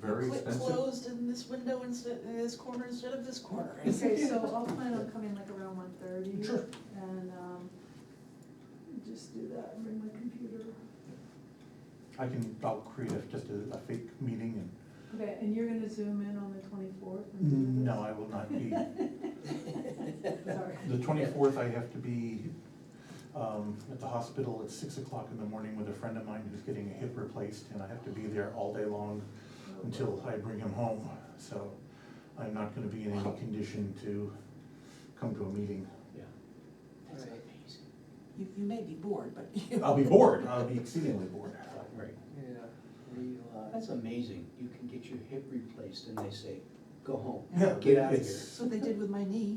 very Click expensive. closed in this window instead, in this corner instead of this corner. Okay, so I'll plan on coming like around one thirty. Sure. And, um, just do that, and bring my computer. I can, I'll create a- just a, a fake meeting Okay, and you're gonna zoom in on the twenty-fourth? Mm. and, no, I will not be. Sorry. The twenty-fourth, I have to be, um, at the hospital at six o'clock in the morning with a friend of mine who's getting a hip replaced, and I have to be there all day long until I bring him home, so I'm not gonna be in any condition to come to a meeting. Yeah. That's Right. amazing. You, you may be bored, but. I'll be bored, I'll be exceedingly bored. Right, Yeah, we, uh, that's amazing, you can get your hip replaced and they say, go home, Yeah, get out of here. it's- That's what they did with my knee.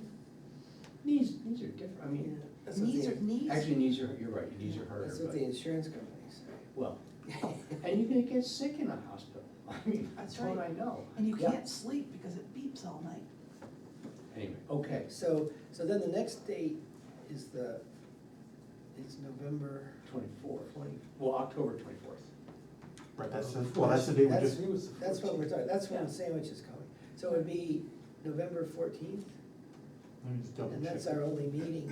Knees, knees are different, I yeah, mean, that's what Knees the- are, knees? actually, knees are, you're right, knees are harder, That's what the but, insurance companies say. well, and you're gonna get sick in a hospital, I mean, that's That's what I right. know. And you Yeah. can't sleep because it beeps all night. Anyway, okay, So, so then the next date is the, is November twenty-fourth, twenty. oh, well, October twenty-fourth. Right, that's, the- well, that's the day we That's- just, That's what we're talking, that's when Yeah. the sandwich is coming. So it'd be November fourteenth, let me just double check. and that's our only meeting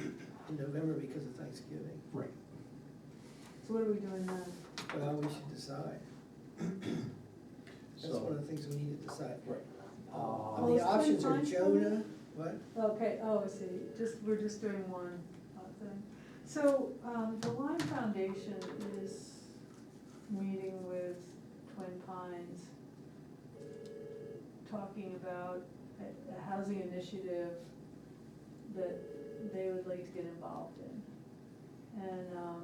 in November because of Thanksgiving. Right, So what are we doing then? Well, we should decide. That's one of So, uh, the things we need to decide. right. Um, Oh, The it's options are 25? Jonah, what? Okay, oh, I see, just, we're just doing one uh, thing. So, um, the Lime Foundation is meeting with Twin Pines, talking about a, a housing initiative that they would like to get involved in. And, um,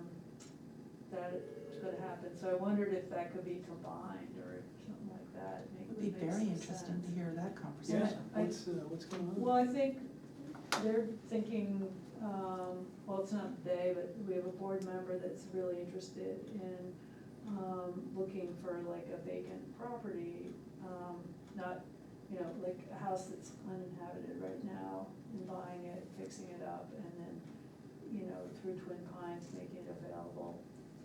that's gonna happen, so I wondered if that could be combined or something like that, make, It would be very make some interesting to sense. hear that conversation. I- What's, what's going Well, I think they're thinking, um, well, it's not they, but we have a board member that's really interested in, um, looking for like a vacant property, um, not, you know, like a house that's uninhabited right now, and buying it, fixing it up, and then, you know, through Twin Pines, making it available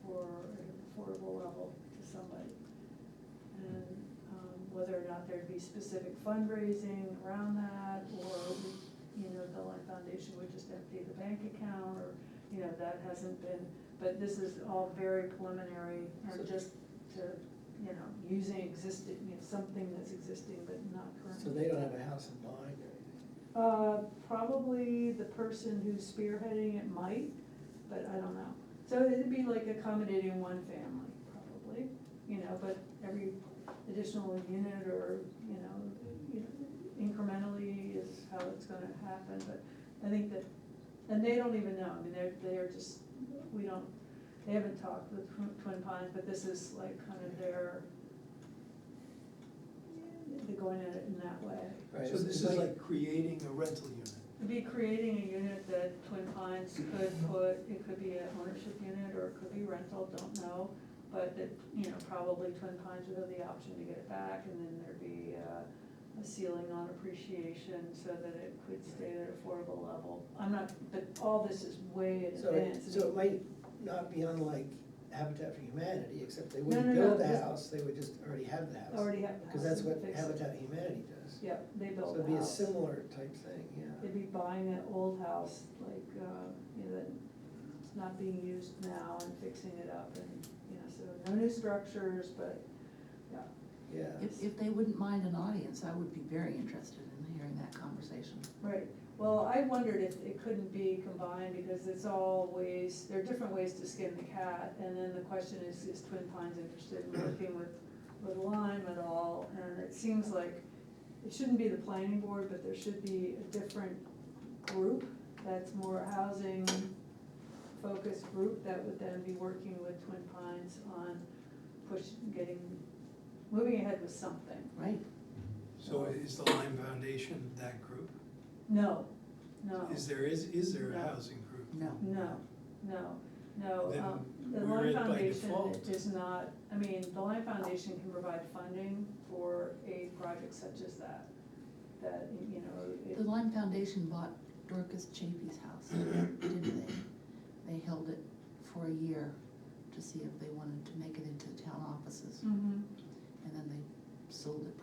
for an affordable level to somebody. And um, whether or not there'd be specific fundraising around that, or, you know, the Lime Foundation would just empty the bank account, or, you know, that hasn't been, but this is all very preliminary, So- and just to, you know, using existing, you know, something that's existing but not currently. So they don't have a house in mind or anything? Uh, probably the person who's spearheading it might, but I don't know. So it'd be like accommodating one family, probably, you know, but every additional unit or, you know, you know, incrementally is how it's gonna happen, but I think that, and they don't even know, I mean, they're, they are just, we don't, they haven't talked with Twin- Twin Pines, but this is like kind of their, they're going at it in that way. Right, So it's- this it's is like creating a rental unit. It'd be creating a unit that Twin Pines could put, it could be an ownership unit or it could be rental, don't know. But that, you know, probably Twin Pines would have the option to get it back and then there'd be uh, a ceiling on appreciation so that it could stay at an affordable level. I'm not, but all this is way in So, it- advance. so it might not be unlike Habitat for Humanity, except they No, wouldn't no, no, build the this- house, they would just already have the house. Already have the house. Because that's what and fix it. Habitat for Humanity does. Yeah, they So built the it'd be a house. similar type thing, yeah. They'd be buying that old house, like, uh, you know, that it's not being used now and fixing it up and, you know, so no new structures, but, yeah. Yeah, If, if they wouldn't mind an audience, I would be very interested in hearing that conversation. Right, well, I wondered if it couldn't be combined, because it's all ways, there are different ways to skin the cat, and then the question is, is Twin Pines interested in working with, with Lime at all? And it seems like it shouldn't be the planning board, but there should be a different group that's more housing focused group that would then be working with Twin Pines on push, getting, moving ahead with something. Right. So is the Lime Foundation that group? No, no. Is there, is, is there No. a housing group? No. No, no, no, Then um, the we're Lime it by Foundation default. is not, I mean, the Lime Foundation can provide funding for a project such as that. That, you know, The it, Lime Foundation bought Dorcas Chapey's house, didn't they? They held it for a year to see if they wanted to make it into town offices, Mhm. and then they sold it